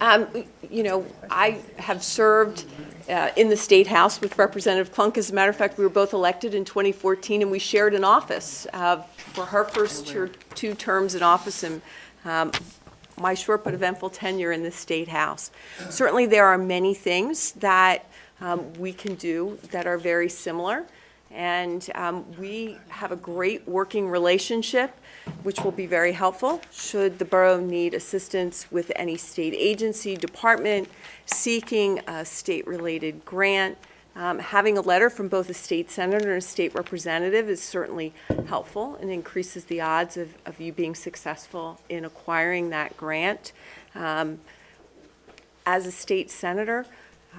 Um, You know, I have served uh, in the State House with Representative Clunk. As a matter of fact, we were both elected in 2014, and we shared an office uh, for her first two- two terms in office and um, my short but eventful tenure in the State House. Certainly, there are many things that um, we can do that are very similar, and um, we have a great working relationship, which will be very helpful should the borough need assistance with any state agency, department, seeking a state-related grant. Um, Having a letter from both a state senator and a state representative is certainly helpful and increases the odds of, of you being successful in acquiring that grant. Um, As a state senator,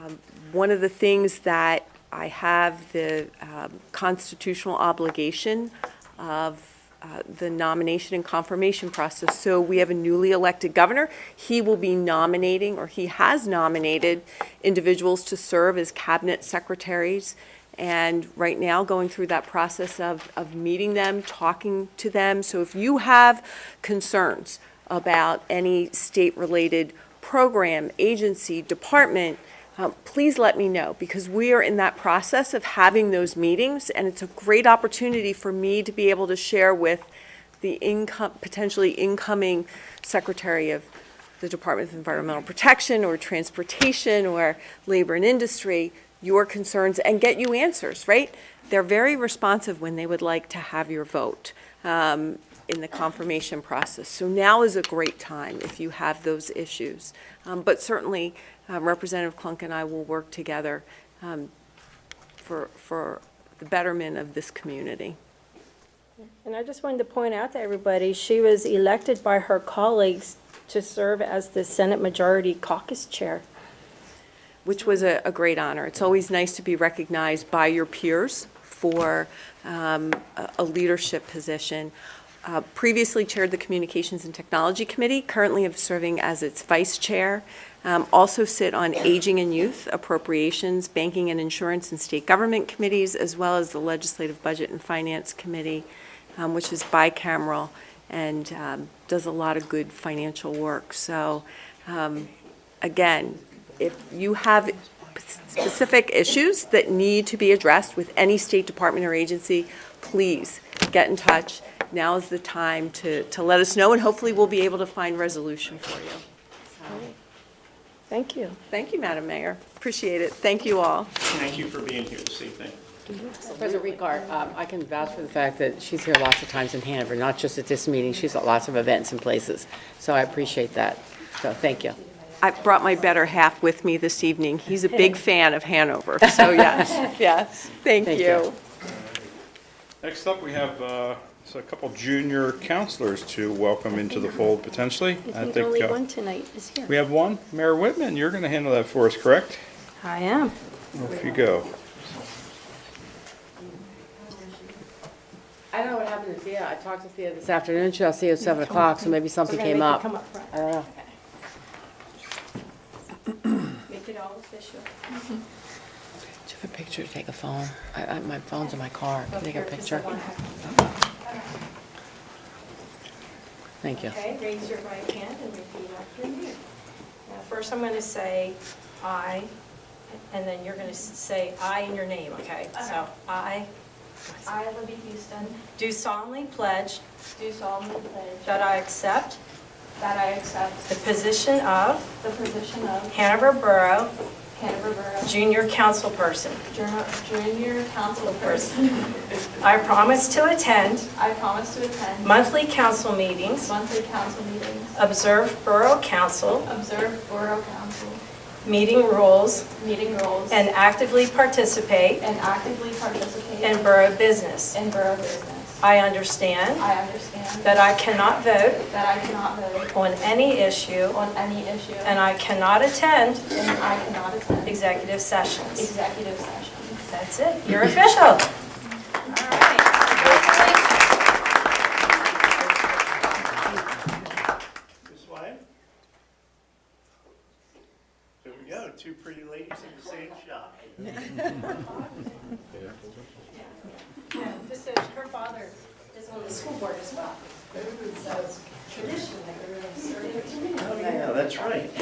um, one of the things that I have the um, constitutional obligation of uh, the nomination and confirmation process. So we have a newly elected governor. He will be nominating, or he has nominated, individuals to serve as cabinet secretaries. And right now, going through that process of, of meeting them, talking to them. So if you have concerns about any state-related program, agency, department, um, please let me know, because we are in that process of having those meetings, and it's a great opportunity for me to be able to share with the income, potentially incoming Secretary of the Department of Environmental Protection, or Transportation, or Labor and Industry, your concerns, and get you answers, right? They're very responsive when they would like to have your vote um, in the confirmation process. So now is a great time if you have those issues. Um, But certainly, um, Representative Clunk and I will work together um, for, for the betterment of this community. And I just wanted to point out to everybody, she was elected by her colleagues to serve as the Senate Majority Caucus Chair. which was a, a great honor. It's always nice to be recognized by your peers for um, a, a leadership position. Uh, previously chaired the Communications and Technology Committee, currently am serving as its vice chair. Um, also sit on Aging and Youth, Appropriations, Banking and Insurance, and State Government Committees, as well as the Legislative Budget and Finance Committee, um, which is bicameral and um, does a lot of good financial work. So, um, again, if you have specific issues that need to be addressed with any state department or agency, please get in touch. Now is the time to, to let us know, and hopefully we'll be able to find resolution for you. Thank you. Thank you, Madam Mayor. Appreciate it. Thank you all. Thank you for being here this evening. President Ricard, um, I can vouch for the fact that she's here lots of times in Hanover, not just at this meeting, she's at lots of events and places. So I appreciate that. So thank you. I brought my better half with me this evening. He's a big fan of Hanover, so yes, yes. Thank Thank you. you. Next up, we have uh, so a couple junior counselors to welcome into the fold potentially. I think only uh, one tonight is We here. have one, Mayor Whitman, you're going to handle that for us, correct? I am. Off you go. I don't know what happened to Thea, I talked to Thea this afternoon, she'll see you at 7 o'clock, so maybe something came up. Uh, I don't know. Make it all official. Do you have a picture to take a phone? I, I, my phone's in my car, Can I take a picture. Thank you. Okay, raise your right hand and repeat after me. Now, first I'm going to say "I," and then you're going to say "I" in your name, okay? So, I Uh-huh. I, Libby Houston, do solemnly pledge do solemnly pledge that I accept that I the accept position of the position of Hanover Borough Hanover Borough Junior Council Person. Junior- Junior Council Person. I promise to attend I promise to attend monthly council meetings, monthly council meetings, observe Borough Council observe Borough Council meeting rules, meeting rules, and and actively participate actively participate in borough business. in borough business. I understand I understand that that I cannot vote I cannot vote on any issue, on any issue, and and I cannot attend I cannot attend executive sessions. executive sessions. That's it, you're official. This way. There we go, two pretty ladies in the same shot. Just her father is on the school board as well. So it's tradition that everyone's serving. Oh, yeah, that's right.